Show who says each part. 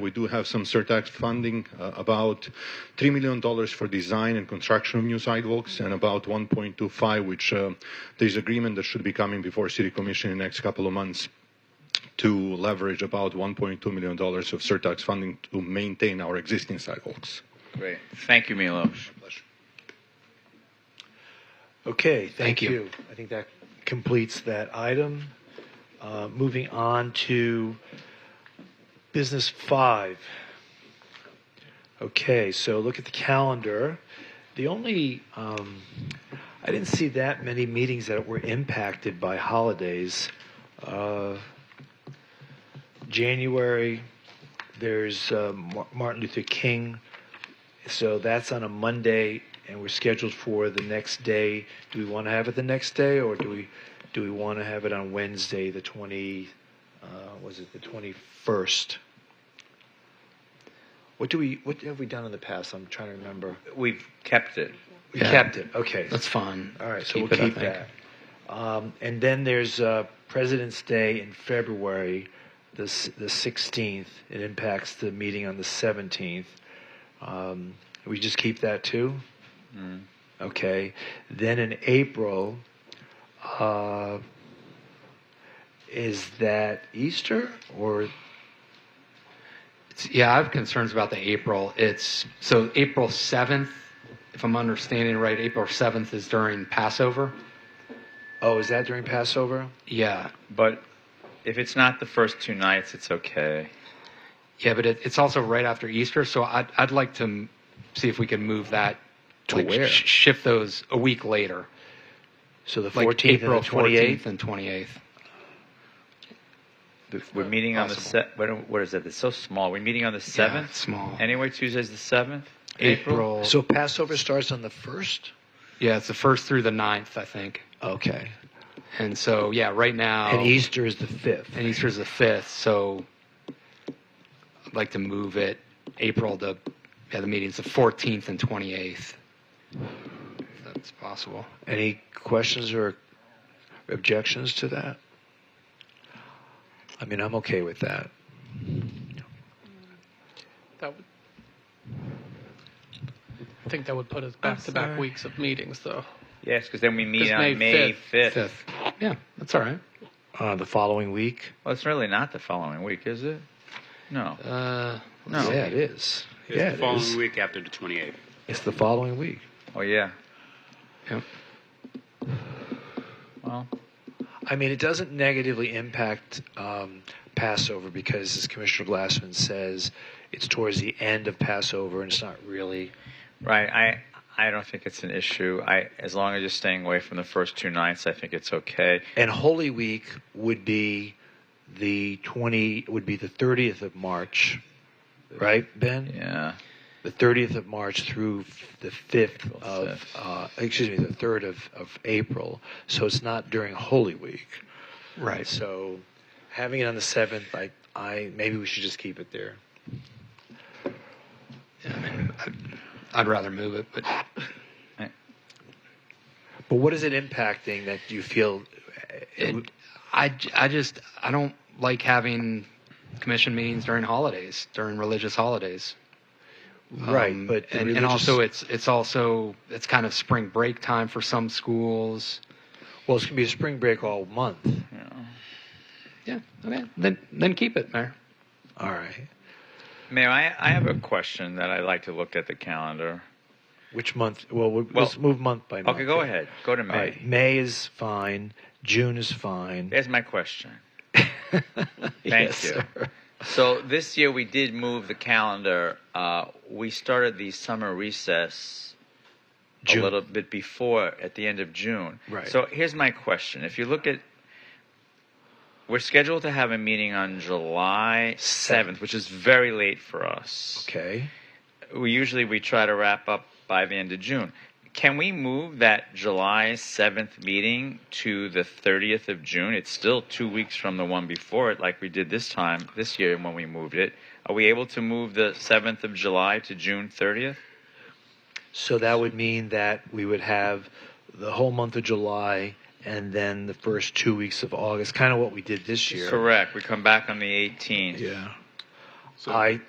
Speaker 1: We do have some surtax funding, uh, about $3 million for design and construction of new sidewalks, and about 1.25, which uh, there's agreement that should be coming before City Commission in the next couple of months to leverage about $1.2 million of surtax funding to maintain our existing sidewalks.
Speaker 2: Great. Thank you, Milos.
Speaker 1: Pleasure.
Speaker 3: Okay, thank
Speaker 4: Thank you.
Speaker 3: you. I think that completes that item. Uh, Moving on to business five. Okay, so look at the calendar. The only, um, I didn't see that many meetings that were impacted by holidays. Uh, January, there's uh, Mar- Martin Luther King so that's on a Monday, and we're scheduled for the next day. Do we want to have it the next day, or do we, do we want to have it on Wednesday, the twenty, uh, was it the twenty-first? What do we, what have we done in the past? I'm trying to remember.
Speaker 2: We've kept it.
Speaker 3: We
Speaker 4: Yeah.
Speaker 3: kept it, okay.
Speaker 4: That's fine.
Speaker 3: All right, so we'll
Speaker 4: it, I
Speaker 3: keep
Speaker 4: think.
Speaker 3: that. Um, and then there's uh, President's Day in February, the s- the 16th. It impacts the meeting on the 17th. Um, we just keep that too.
Speaker 4: Mm-hmm.
Speaker 3: Okay. Then in April, uh, is that Easter or
Speaker 4: It's- Yeah, I have concerns about the April. It's so April 7th, if I'm understanding right, April 7th is during Passover.
Speaker 3: oh, is that during Passover?
Speaker 4: Yeah.
Speaker 2: But if it's not the first two nights, it's okay.
Speaker 4: Yeah, but it, it's also right after Easter, so I'd, I'd like to m- see if we can move that
Speaker 3: To where?
Speaker 4: sh- shift those a week later,
Speaker 3: So the
Speaker 4: like
Speaker 3: 14th
Speaker 4: April
Speaker 3: and the 28th.
Speaker 4: 14th and 28th.
Speaker 2: We're meeting on the
Speaker 4: Uh, possible.
Speaker 2: se- what, what is it? It's so small. We're meeting on the
Speaker 4: Yeah,
Speaker 2: seventh.
Speaker 4: it's small.
Speaker 2: anyway, Tuesday's the seventh.
Speaker 4: April.
Speaker 3: So Passover starts on the first.
Speaker 4: yeah, it's the first through the 9th, I think.
Speaker 3: Okay.
Speaker 4: And so, yeah, right now.
Speaker 3: And Easter is the fifth.
Speaker 4: And Easter's the fifth, so I'd like to move it April to, yeah, the meeting's the fourteenth and twenty-eighth. If that's possible.
Speaker 3: Any questions or objections to that? I mean, I'm okay with that.
Speaker 5: That would. I think that would put us back to back
Speaker 3: sorry.
Speaker 5: weeks of meetings, though.
Speaker 2: Yes, because then we meet
Speaker 5: It's
Speaker 2: on
Speaker 5: May
Speaker 2: May
Speaker 5: 5th.
Speaker 2: fifth.
Speaker 4: Fifth, yeah, that's all right.
Speaker 3: Uh, the following week?
Speaker 2: Well, it's really not the following week, is it? No.
Speaker 4: Uh,
Speaker 2: No.
Speaker 3: Yeah, it is.
Speaker 6: It's
Speaker 3: yeah,
Speaker 6: the
Speaker 3: it
Speaker 6: following
Speaker 3: is.
Speaker 6: week after the 28th.
Speaker 3: It's the following week.
Speaker 2: Oh yeah.
Speaker 4: yeah.
Speaker 2: Well,
Speaker 3: I mean, it doesn't negatively impact um, Passover because, as Commissioner Glassman says, it's towards the end of Passover and it's not really.
Speaker 2: right. I I don't think it's an issue. I as long as you're staying away from the first two nights, I think it's okay.
Speaker 3: And Holy Week would be the 20, would be the 30th of March, right, Ben?
Speaker 2: Yeah.
Speaker 3: the 30th of March through f- the 5th of,
Speaker 2: fifth.
Speaker 3: uh, excuse me, the 3rd of, of April. So it's not during Holy Week.
Speaker 4: Right. So
Speaker 3: So having it on the 7th, I, I maybe we should just keep it there.
Speaker 4: I'd rather move it, but
Speaker 3: But what is it impacting that you feel? uh,
Speaker 4: it, I, j- I just, I don't like having commission meetings during holidays, during religious holidays.
Speaker 3: right,
Speaker 4: Um,
Speaker 3: but the
Speaker 4: and, and
Speaker 3: religious-
Speaker 4: also it's it's also it's kind of spring break time for some schools.
Speaker 3: well, it's going to be a spring break all month.
Speaker 4: Yeah, okay. Then then keep it, Mayor.
Speaker 3: All right.
Speaker 2: Mayor, I, I have a question that I'd like to look at the calendar.
Speaker 3: Which month? Well, we
Speaker 2: Well-
Speaker 3: let's move month by month.
Speaker 2: Okay, go ahead. Go to May.
Speaker 3: All right. May is fine. June is fine.
Speaker 2: There's my question.
Speaker 3: yes,
Speaker 2: you.
Speaker 3: sir.
Speaker 2: So this year we did move the calendar. Uh, we started the summer recess
Speaker 3: June.
Speaker 2: a little bit before, at the end of June.
Speaker 3: Right.
Speaker 2: So here's my question: If you look at, we're scheduled to have a meeting on July seventh, which is very late for us.
Speaker 3: Okay.
Speaker 2: We usually we try to wrap up by the end of June. Can we move that July seventh meeting to the thirtieth of June? It's still two weeks from the one before it, like we did this time this year when we moved it. Are we able to move the seventh of July to June thirtieth?
Speaker 3: So that would mean that we would have the whole month of July and then the first two weeks of August, kind of what we did this year.
Speaker 2: Correct. We come back on the eighteenth.
Speaker 3: Yeah.
Speaker 6: So-
Speaker 3: I